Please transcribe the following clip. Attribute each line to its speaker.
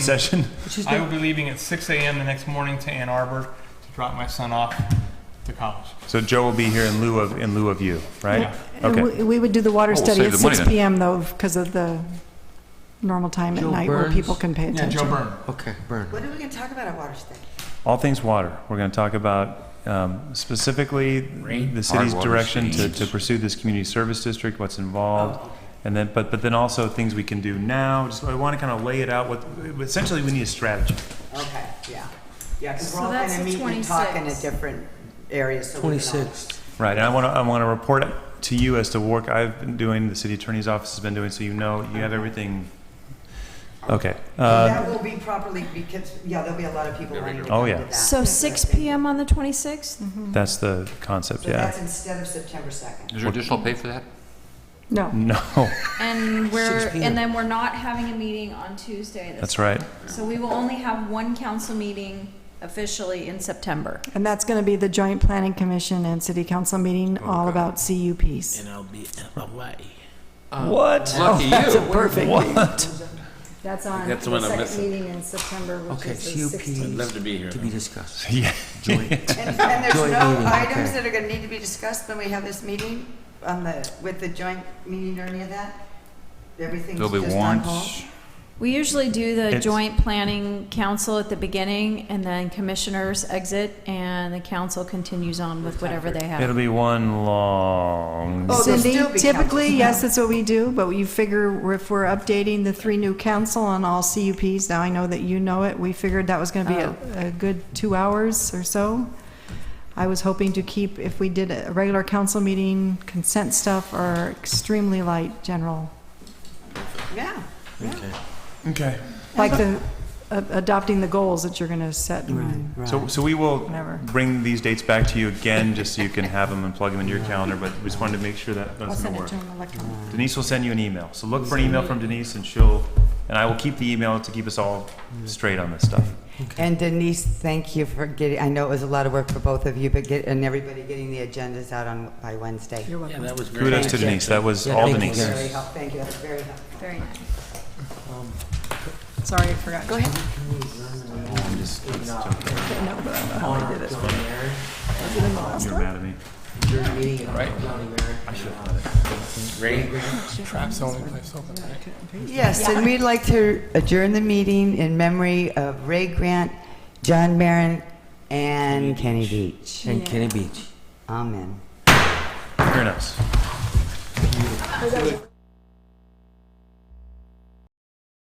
Speaker 1: session.
Speaker 2: I will be leaving at 6 a.m. the next morning to Ann Arbor to drop my son off to college.
Speaker 1: So Joe will be here in lieu of, in lieu of you, right?
Speaker 3: And
Speaker 1: Okay.
Speaker 3: we- We would do the water
Speaker 4: Oh, we'll
Speaker 3: study
Speaker 4: save
Speaker 3: at
Speaker 4: the money
Speaker 3: 6
Speaker 4: then.
Speaker 3: PM though, because of the normal time at
Speaker 5: Joe
Speaker 3: night where
Speaker 5: Burns?
Speaker 3: people can pay
Speaker 2: Yeah,
Speaker 3: attention.
Speaker 2: Joe Byrne.
Speaker 5: Okay, burn.
Speaker 6: What are we going to talk about at water study?
Speaker 1: All things water. We're going to talk about um, specifically
Speaker 4: Rain,
Speaker 1: the city's
Speaker 4: hard water,
Speaker 1: direction to,
Speaker 4: streams. Oh.
Speaker 1: to pursue this community service district, what's involved. And then, but, but then also things we can do now. Just, I want to kind of lay it out. What, essentially, we need a strategy.
Speaker 6: Okay, yeah. Yeah, because
Speaker 7: So
Speaker 6: we're all going
Speaker 7: that's
Speaker 6: to
Speaker 7: the
Speaker 6: meet and talk in a
Speaker 7: 26th.
Speaker 6: different area, so we can all-
Speaker 5: 26th.
Speaker 1: Right, and I want to, I want to report to you as to work I've been doing, the city attorney's office has been doing, so you know, you have everything. Okay.
Speaker 6: And
Speaker 1: Uh,
Speaker 6: That will be properly, because, yeah, there'll be a lot of people wanting to
Speaker 1: Oh,
Speaker 6: come
Speaker 1: yeah.
Speaker 6: to that.
Speaker 7: So 6 PM on the 26th?
Speaker 1: That's the concept,
Speaker 6: So
Speaker 1: yeah.
Speaker 6: that's instead of September 2nd.
Speaker 4: Is there additional pay for that?
Speaker 3: No,
Speaker 1: No,
Speaker 7: And we're,
Speaker 5: 6 p.m.
Speaker 7: and then we're not having a meeting on Tuesday.
Speaker 1: that's right.
Speaker 7: So we will only have one council meeting officially in September.
Speaker 3: and that's going to be the joint planning commission and city council meeting
Speaker 4: Oh,
Speaker 3: all about CUPs.
Speaker 8: and I'll be away.
Speaker 1: What?
Speaker 4: Uh, Lucky you.
Speaker 1: What?
Speaker 3: That's on
Speaker 8: That's the one
Speaker 3: the
Speaker 8: I'm
Speaker 3: second
Speaker 8: missing.
Speaker 3: meeting in September, which
Speaker 5: Okay,
Speaker 3: is the
Speaker 5: CUP
Speaker 3: 16th.
Speaker 8: Love to be here.
Speaker 5: to be discussed.
Speaker 1: Yeah.
Speaker 5: Joint.
Speaker 6: And and there's
Speaker 5: Joint
Speaker 6: no
Speaker 5: meeting,
Speaker 6: items
Speaker 5: okay.
Speaker 6: that are going to need to be discussed when we have this meeting on the, with the joint meeting or any of that? Everything's
Speaker 4: There'll be
Speaker 6: just on hold?
Speaker 4: warrants.
Speaker 7: We usually do the
Speaker 1: It's-
Speaker 7: joint planning council at the beginning and then commissioners exit and the council continues on with whatever they
Speaker 1: It'll
Speaker 7: have.
Speaker 1: be one long.
Speaker 6: Oh, there'll
Speaker 3: Cindy,
Speaker 6: still be
Speaker 3: typically,
Speaker 6: councils.
Speaker 3: yes, that's what we do, but you figure if we're updating the three new council on all CUPs, now I know that you know it, we figured that was going to be a, a good two hours or so. I was hoping to keep, if we did a regular council meeting, consent stuff or extremely light general,
Speaker 6: Yeah.
Speaker 5: Okay.
Speaker 1: Okay.
Speaker 3: like the, a- adopting the goals that you're going to set.
Speaker 5: Right,
Speaker 3: and-
Speaker 5: right.
Speaker 1: So, so we will
Speaker 3: Whatever.
Speaker 1: bring these dates back to you again, just so you can have them and plug them into your calendar, but we just wanted to make sure that
Speaker 3: I'll
Speaker 1: that's
Speaker 3: send
Speaker 1: gonna
Speaker 3: it
Speaker 1: work.
Speaker 3: to him electronically.
Speaker 1: Denise will send you an email, so look for an email from Denise and she'll, and I will keep the email to keep us all straight on this stuff.
Speaker 6: And Denise, thank you for getting, I know it was a lot of work for both of you, but get, and everybody getting the agendas out on, by Wednesday.
Speaker 3: You're
Speaker 8: Yeah,
Speaker 3: welcome.
Speaker 8: that was great.
Speaker 1: Kudos to Denise, that was
Speaker 5: Yeah,
Speaker 1: all
Speaker 5: thank you,
Speaker 1: Denise.
Speaker 5: guys.
Speaker 6: Very helpful, thank you, that's very helpful.
Speaker 7: Very nice.
Speaker 3: Sorry, I forgot. Go ahead.
Speaker 1: You're mad at me.
Speaker 5: Your meeting at County Mayor.
Speaker 2: Trap's the only place open, right?
Speaker 6: Yes, and we'd like to adjourn the meeting in memory of Ray Grant, John Barron, and Kenny Beach.
Speaker 5: And Kenny Beach.
Speaker 6: Amen.
Speaker 1: Very nice.